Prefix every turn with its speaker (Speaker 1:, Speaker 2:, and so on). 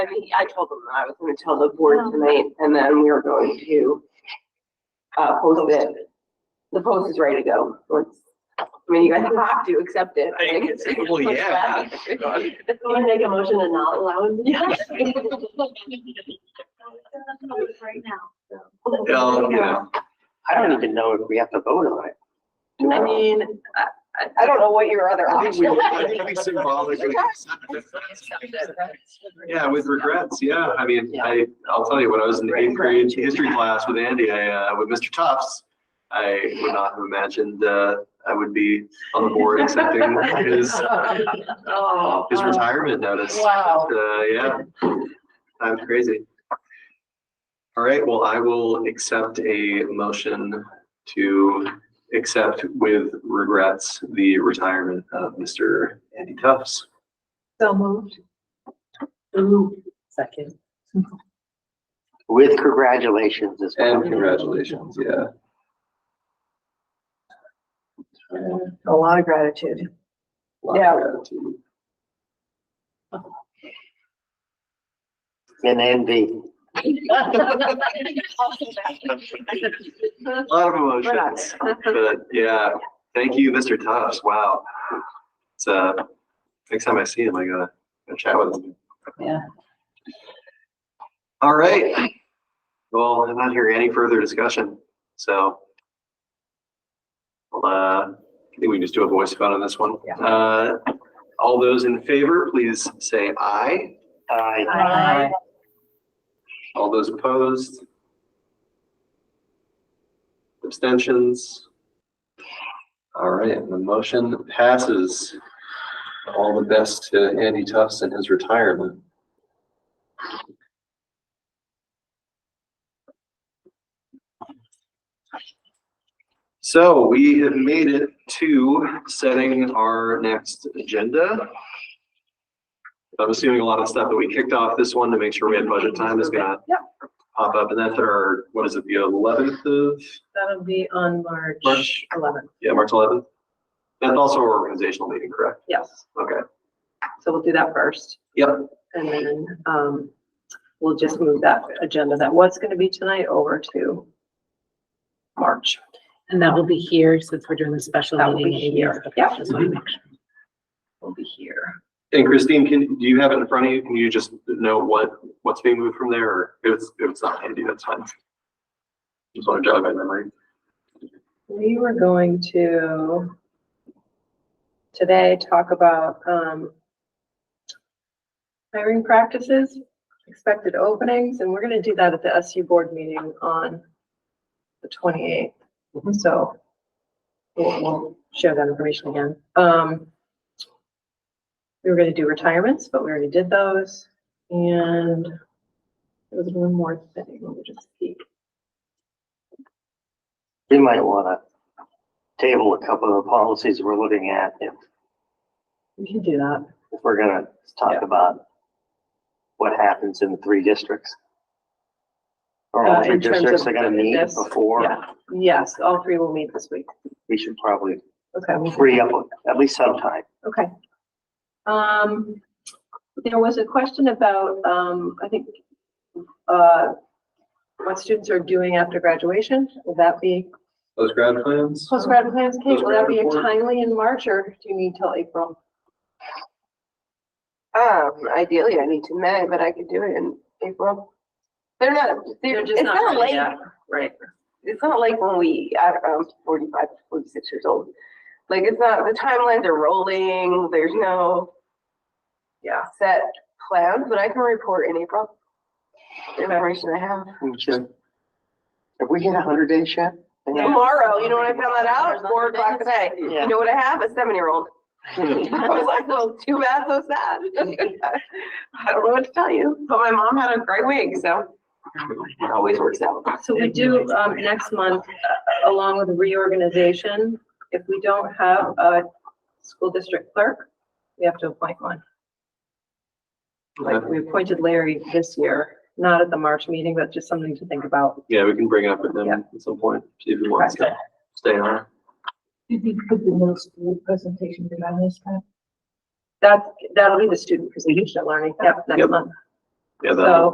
Speaker 1: I mean, I told them that I was gonna tell the
Speaker 2: Oh.
Speaker 1: board tonight, and then we were going to, uh, post it. The post is ready to go. Let's- I mean, you guys have to accept it.
Speaker 3: I think it's- well, yeah. God.
Speaker 2: want to make a motion to not allow him?
Speaker 4: Right now.
Speaker 3: No, Oh, yeah.
Speaker 5: I don't even know if we have to vote on it.
Speaker 1: I mean, I, I- I don't know what your other
Speaker 3: I think we-
Speaker 1: option
Speaker 3: I think we symbolically accepted it. Yeah, with regrets, yeah. I mean, I, I'll tell you, when I was in the eighth grade history class with Andy, I, uh, with Mr. Tufts, I would not have imagined, uh, I would be on the board accepting his,
Speaker 1: Oh,
Speaker 3: his retirement notice.
Speaker 1: Wow.
Speaker 3: Uh, yeah. That's crazy. All right, well, I will accept a motion to accept with regrets the retirement of Mr. Andy Tufts.
Speaker 2: So moved. Ooh.
Speaker 6: Second.
Speaker 5: With congratulations as well.
Speaker 3: And congratulations, yeah.
Speaker 2: A lot of gratitude.
Speaker 3: Lot of
Speaker 1: Yeah.
Speaker 3: gratitude.
Speaker 5: And envy.
Speaker 3: A lot of
Speaker 1: We're not
Speaker 3: emotions, but yeah, thank you, Mr. Tufts, wow. It's, uh, next time I see him, I gotta gotta chat with him.
Speaker 6: Yeah.
Speaker 3: All right. Well, I'm not hearing any further discussion, so. Well, uh, I think we can just do a voice vote on this one.
Speaker 6: Yeah.
Speaker 3: Uh, all those in favor, please say aye.
Speaker 5: I
Speaker 6: Aye.
Speaker 3: All those opposed? Abstentions? All right, the motion passes. All the best to Andy Tufts and his retirement. So we have made it to setting our next agenda. I'm assuming a lot of stuff that we kicked off this one to make sure we had budget time is gonna pop up, and that's our, what is it, the eleventh of
Speaker 6: That'll be on March
Speaker 3: March?
Speaker 6: eleventh.
Speaker 3: Yeah, March eleventh. That's also our organizational meeting, correct?
Speaker 6: Yes,
Speaker 3: Okay,
Speaker 6: so we'll do that first.
Speaker 3: Yep.
Speaker 6: And then, um, we'll just move that agenda that was gonna be tonight over to March.
Speaker 7: And that will be here since we're doing the special
Speaker 6: That will
Speaker 7: meeting.
Speaker 6: be
Speaker 7: at eight
Speaker 6: here.
Speaker 7: o'clock.
Speaker 6: Yeah.
Speaker 7: Just wanna make sure.
Speaker 6: We'll be here.
Speaker 3: and Christine, can, do you have it in front of you? Can you just know what, what's being moved from there, or if it's, if it's not handy, that's fine. Just wanna jog my memory.
Speaker 6: We were going to today talk about, um, hiring practices, expected openings, and we're gonna do that at the SU board meeting on the twenty-eighth. So we'll, we'll share that information again. Um, we were gonna do retirements, but we already did those. And there was one more thing, let me just see.
Speaker 5: We might wanna table a couple of the policies we're looking at if,
Speaker 6: We can do that.
Speaker 5: if we're gonna talk about what happens in the three districts. Or
Speaker 6: Uh,
Speaker 5: all three
Speaker 6: in terms
Speaker 5: districts
Speaker 6: of
Speaker 5: are gonna meet
Speaker 6: this,
Speaker 5: before,
Speaker 6: yeah. Yes, all three will meet this week.
Speaker 5: we should probably
Speaker 6: Okay.
Speaker 5: free up at least some time.
Speaker 6: Okay. Um, there was a question about, um, I think, uh, what students are doing after graduation. Will that be
Speaker 3: Those grad plans?
Speaker 6: post-grad plans, Kate? Will that be
Speaker 3: Post-grad report.
Speaker 6: timely in March or do you need till April?
Speaker 1: Um, ideally, I need to May, but I could do it in April. They're not, they're,
Speaker 6: They're
Speaker 1: it's
Speaker 6: just
Speaker 1: not
Speaker 6: ready
Speaker 1: like,
Speaker 6: yet, Right.
Speaker 1: it's not like when we, I don't know, I'm 45, 46 years old. Like, it's not, the timelines are rolling, there's no
Speaker 6: Yeah.
Speaker 1: set plans, but I can report in April. The Information I have.
Speaker 5: We should- Have we hit a hundred days yet?
Speaker 1: Tomorrow, you know when I found that out? Four o'clock today. You know what I have? A seven-year-old. I was like, well, too bad, so sad. I don't know what to tell you, but my mom had a great week, so it always works out.
Speaker 6: So we do, um, next month, uh, along with reorganization, if we don't have a school district clerk, we have to appoint one. Like,
Speaker 3: Okay.
Speaker 6: we appointed Larry this year, not at the March meeting, but just something to think about.
Speaker 3: Yeah, we can bring it up with them
Speaker 6: Yeah.
Speaker 3: at some point, see if he wants to stay on.
Speaker 2: Do you think could the middle school presentation be on this time?
Speaker 6: That, that'll be the student presentation learning, yep, next
Speaker 3: Yep.
Speaker 6: month.
Speaker 3: Yeah, that-
Speaker 6: So.